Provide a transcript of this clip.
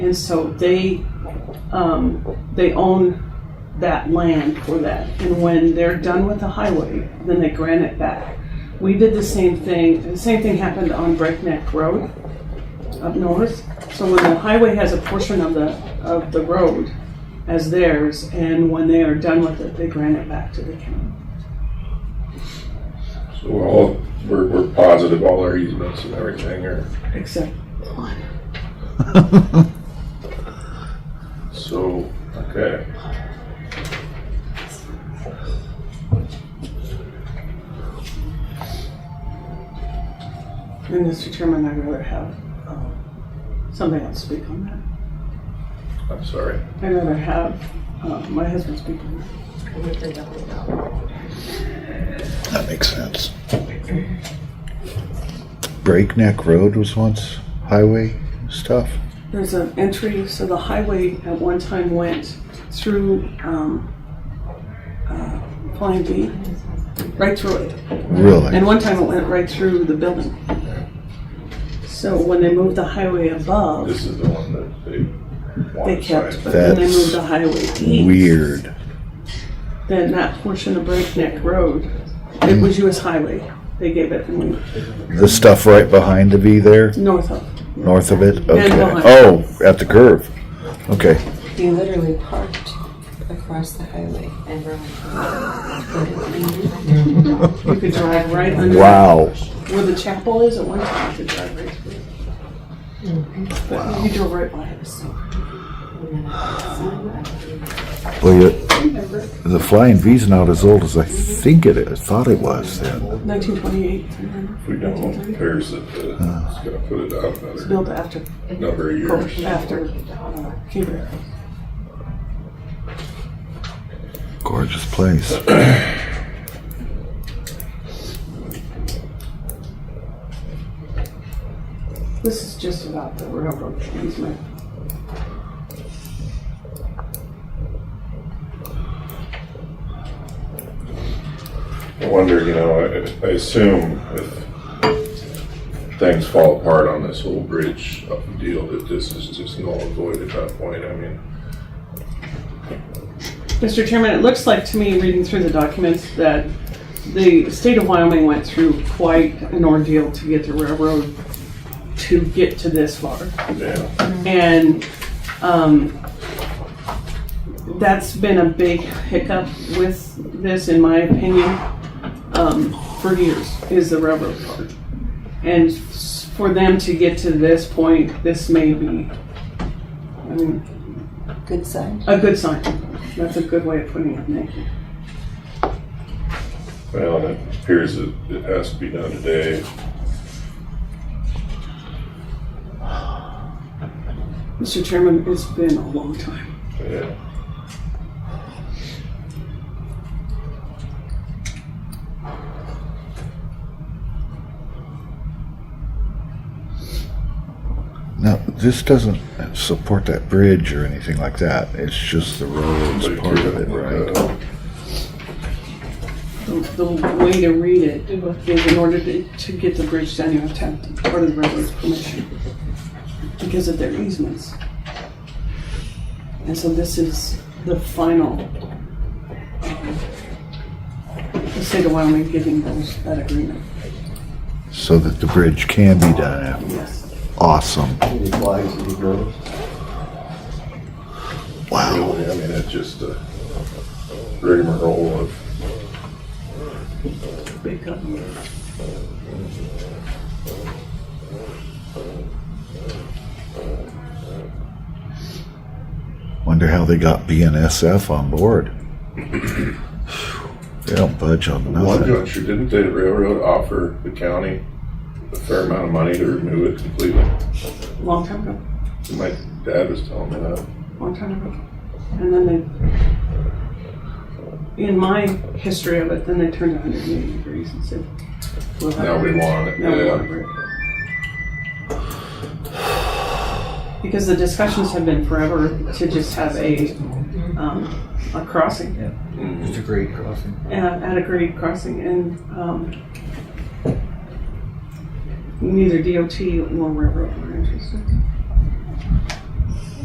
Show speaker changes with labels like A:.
A: And so they, um, they own that land for that. And when they're done with the highway, then they grant it back. We did the same thing, the same thing happened on Breakneck Road up north. So when the highway has a portion of the, of the road as theirs, and when they are done with it, they grant it back to the county.
B: So we're all, we're, we're positive all our easements and everything are,
A: Except one.
B: so, okay.
A: And Mr. Chairman, I'd rather have um, somebody else speak on that.
B: I'm sorry.
A: I'd rather have uh, my husband speak on that.
C: That makes sense. Breakneck Road was once highway stuff.
A: There's an entry, so the highway at one time went through um, uh, Flying V, right through it. And
C: Really?
A: one time it went right through the building. So when they moved the highway above,
B: This is the one that they
A: they
B: want to
A: kept,
B: sign.
A: but then they
C: That's
A: moved the highway east.
C: Weird.
A: Then that portion of Breakneck Road, it was US Highway. They gave it when we
C: The stuff right behind the V there,
A: north of.
C: north of it? Okay.
A: behind.
C: Oh, at the curve. Okay.
D: He literally parked across the highway and rode.
A: You could drive right under
C: Wow.
A: where the chapel is at one time. You could drive right through. But you drove right by it. So
C: Well, you- the Flying V's not as old as I think it is. Thought it was then.
A: 1928
B: If we don't repair it, uh, it's gonna put it out another
A: built after
B: number of years.
A: after uh, Cuba.
C: Gorgeous place.
A: This is just about the railroad easement.
B: I wonder, you know, I, I assume if things fall apart on this whole bridge up the deal, that this is just null and void at that point, I mean.
A: Mr. Chairman, it looks like to me, reading through the documents, that the state of Wyoming went through quite an ordeal to get the railroad to get to this far.
B: Yeah,
A: And um, that's been a big hiccup with this, in my opinion, um, for years, is the railroad part. And s- for them to get to this point, this may be, I mean,
D: Good sign.
A: a good sign. That's a good way of putting it, Nick.
B: well, it appears that it has to be done today.
A: Mr. Chairman, it's been a long time.
B: Yeah.
C: Now, this doesn't support that bridge or anything like that. It's just the roads
B: But
C: part of
B: you're
C: it,
B: gonna,
C: right?
B: uh,
A: The, the way to read it is in order to, to get the bridge down, you have to have part of the railroad's permission because of their easements. And so this is the final, um, the state of Wyoming giving those, that agreement,
C: So that the bridge can be done after.
A: yes.
C: Awesome.
E: Any flags that you grow?
B: Wow. I mean, it's just a rigmarole of
A: Big up.
C: Wonder how they got BNSF on board. they don't budge on
B: One
C: nothing.
B: juncture, didn't the railroad offer the county a fair amount of money to remove it completely?
A: Long time ago,
B: My dad was telling me that.
A: long time ago. And then they, in my history of it, then they turned 180 degrees and said, we'll have
B: Now we
A: it.
B: want it.
A: No, we want to
B: Yeah.
A: break. Because the discussions have been forever to just have a, um, a crossing,
B: Mhm.
E: It's a great crossing.
A: uh, at a grade crossing and, um, neither DOT nor railroad were interested.